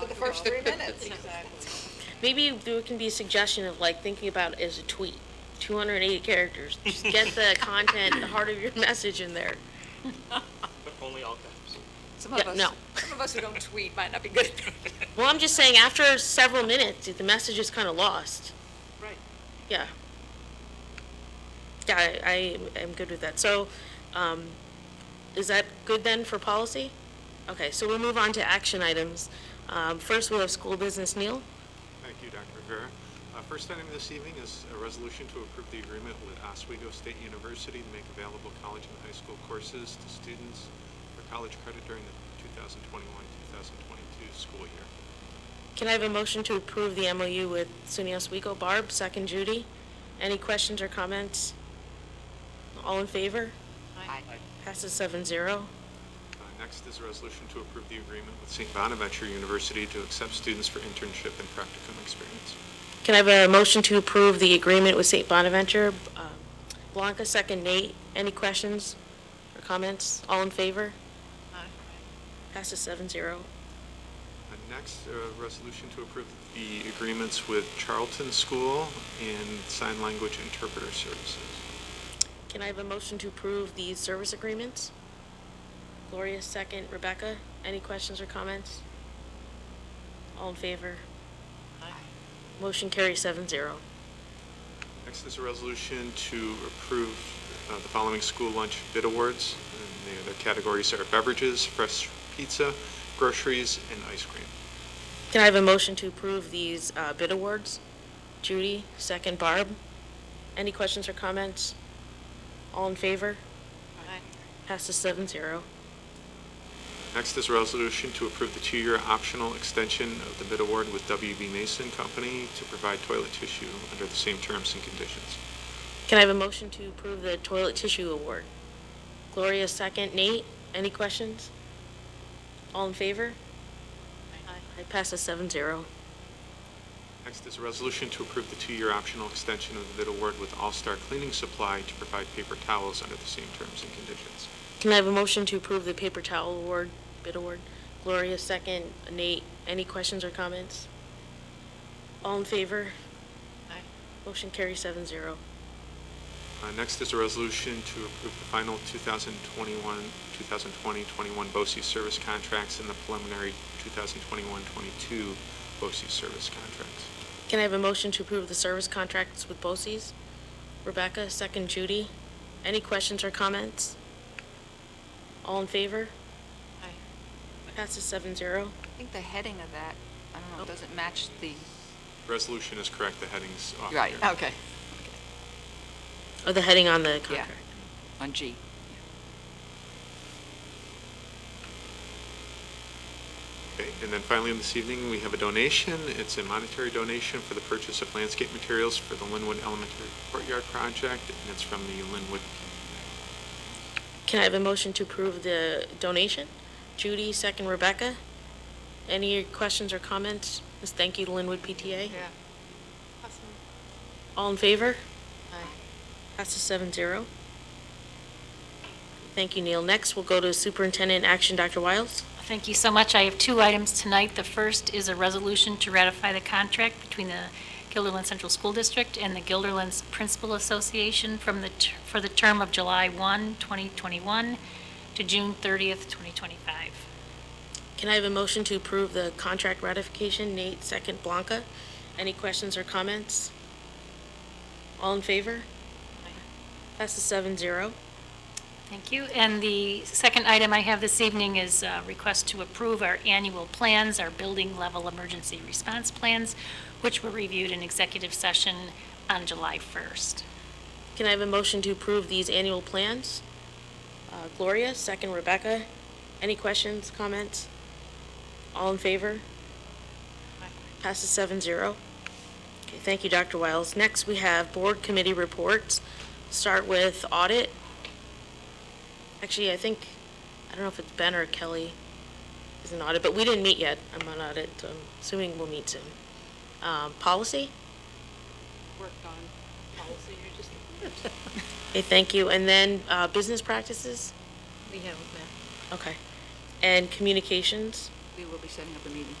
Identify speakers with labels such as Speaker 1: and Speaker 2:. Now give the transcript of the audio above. Speaker 1: to the first three minutes.
Speaker 2: Maybe there can be a suggestion of like thinking about it as a tweet, 280 characters. Just get the content, the heart of your message in there.
Speaker 3: but only all caps.
Speaker 1: Some of
Speaker 2: Yeah,
Speaker 1: us,
Speaker 2: no.
Speaker 1: some of us who don't tweet might not be good.
Speaker 2: Well, I'm just saying, after several minutes, the message is kind of lost.
Speaker 1: Right.
Speaker 2: Yeah. Yeah, I, I am good with that. So, um, is that good then for policy? Okay, so we'll move on to action items. Um, first, we'll have school business. Neil?
Speaker 4: Thank you, Dr. Rivera. Uh, First item this evening is a resolution to approve the agreement with Oswego State University to make available college and high school courses to students for college credit during the 2021-2022 school year.
Speaker 2: Can I have a motion to approve the MOU with SUNY Oswego? Barb, second Judy. Any questions or comments? All in favor? Passes seven zero.
Speaker 4: Uh, Next is a resolution to approve the agreement with St. Bonaventure University to accept students for internship and practicum experience.
Speaker 2: Can I have a motion to approve the agreement with St. Bonaventure? Um, Blanca, second Nate. Any questions or comments? All in favor? Passes seven zero.
Speaker 4: Uh, Next, a resolution to approve the agreements with Charlton School and Sign Language Interpreter Services.
Speaker 2: Can I have a motion to approve the service agreements? Gloria, second. Rebecca, any questions or comments? All in favor? Motion carries seven zero.
Speaker 4: Next is a resolution to approve uh, the following school lunch bid awards. And the other categories are beverages, fresh pizza, groceries, and ice cream.
Speaker 2: Can I have a motion to approve these uh, bid awards? Judy, second Barb. Any questions or comments? All in favor? Passes seven zero.
Speaker 4: Next is a resolution to approve the two-year optional extension of the bid award with WB Mason Company to provide toilet tissue under the same terms and conditions.
Speaker 2: Can I have a motion to approve the toilet tissue award? Gloria, second. Nate, any questions? All in favor? It passes seven zero.
Speaker 4: Next is a resolution to approve the two-year optional extension of the bid award with All-Star Cleaning Supply to provide paper towels under the same terms and conditions.
Speaker 2: Can I have a motion to approve the paper towel award, bid award? Gloria, second. Nate, any questions or comments? All in favor? Motion carries seven zero.
Speaker 4: Uh, Next is a resolution to approve the final 2021, 2020-21 BOSI service contracts and the preliminary 2021-22 BOSI service contracts.
Speaker 2: Can I have a motion to approve the service contracts with BOCES? Rebecca, second Judy. Any questions or comments? All in favor? Passes seven zero.
Speaker 1: I think the heading of that, I don't know, it doesn't match the.
Speaker 4: Resolution is correct, the heading's off here.
Speaker 1: Okay.
Speaker 2: Oh, the heading on the
Speaker 1: Yeah,
Speaker 2: contract.
Speaker 1: on G.
Speaker 4: Okay, and then finally, this evening, we have a donation. It's a monetary donation for the purchase of landscape materials for the Linwood Elementary Courtyard Project, and it's from the Linwood
Speaker 2: Can I have a motion to approve the donation? Judy, second Rebecca. Any questions or comments? Just thank you to Linwood PTA. All in favor? Passes seven zero. Thank you, Neil. Next, we'll go to superintendent action, Dr. Wiles.
Speaker 5: Thank you so much. I have two items tonight. The first is a resolution to ratify the contract between the Gilderland Central School District and the Gilderland Principal Association from the, ter- for the term of July 1, 2021 to June 30th, 2025.
Speaker 2: Can I have a motion to approve the contract ratification? Nate, second Blanca. Any questions or comments? All in favor? Passes seven zero.
Speaker 5: Thank you. And the second item I have this evening is a request to approve our annual plans, our building level emergency response plans, which were reviewed in executive session on July 1st.
Speaker 2: Can I have a motion to approve these annual plans? Uh, Gloria, second Rebecca. Any questions, comments? All in favor? Passes seven zero. Okay, thank you, Dr. Wiles. Next, we have board committee reports. Start with audit. Actually, I think, I don't know if it's Ben or Kelly is an audit, but we didn't meet yet. I'm on audit, so I'm assuming we'll meet soon. Um, Policy?
Speaker 6: worked on
Speaker 1: Oh,
Speaker 6: policy, you're just.
Speaker 2: Okay, thank you. And then uh, business practices?
Speaker 6: We haven't met.
Speaker 2: Okay. And communications?
Speaker 6: We will be setting up a meeting.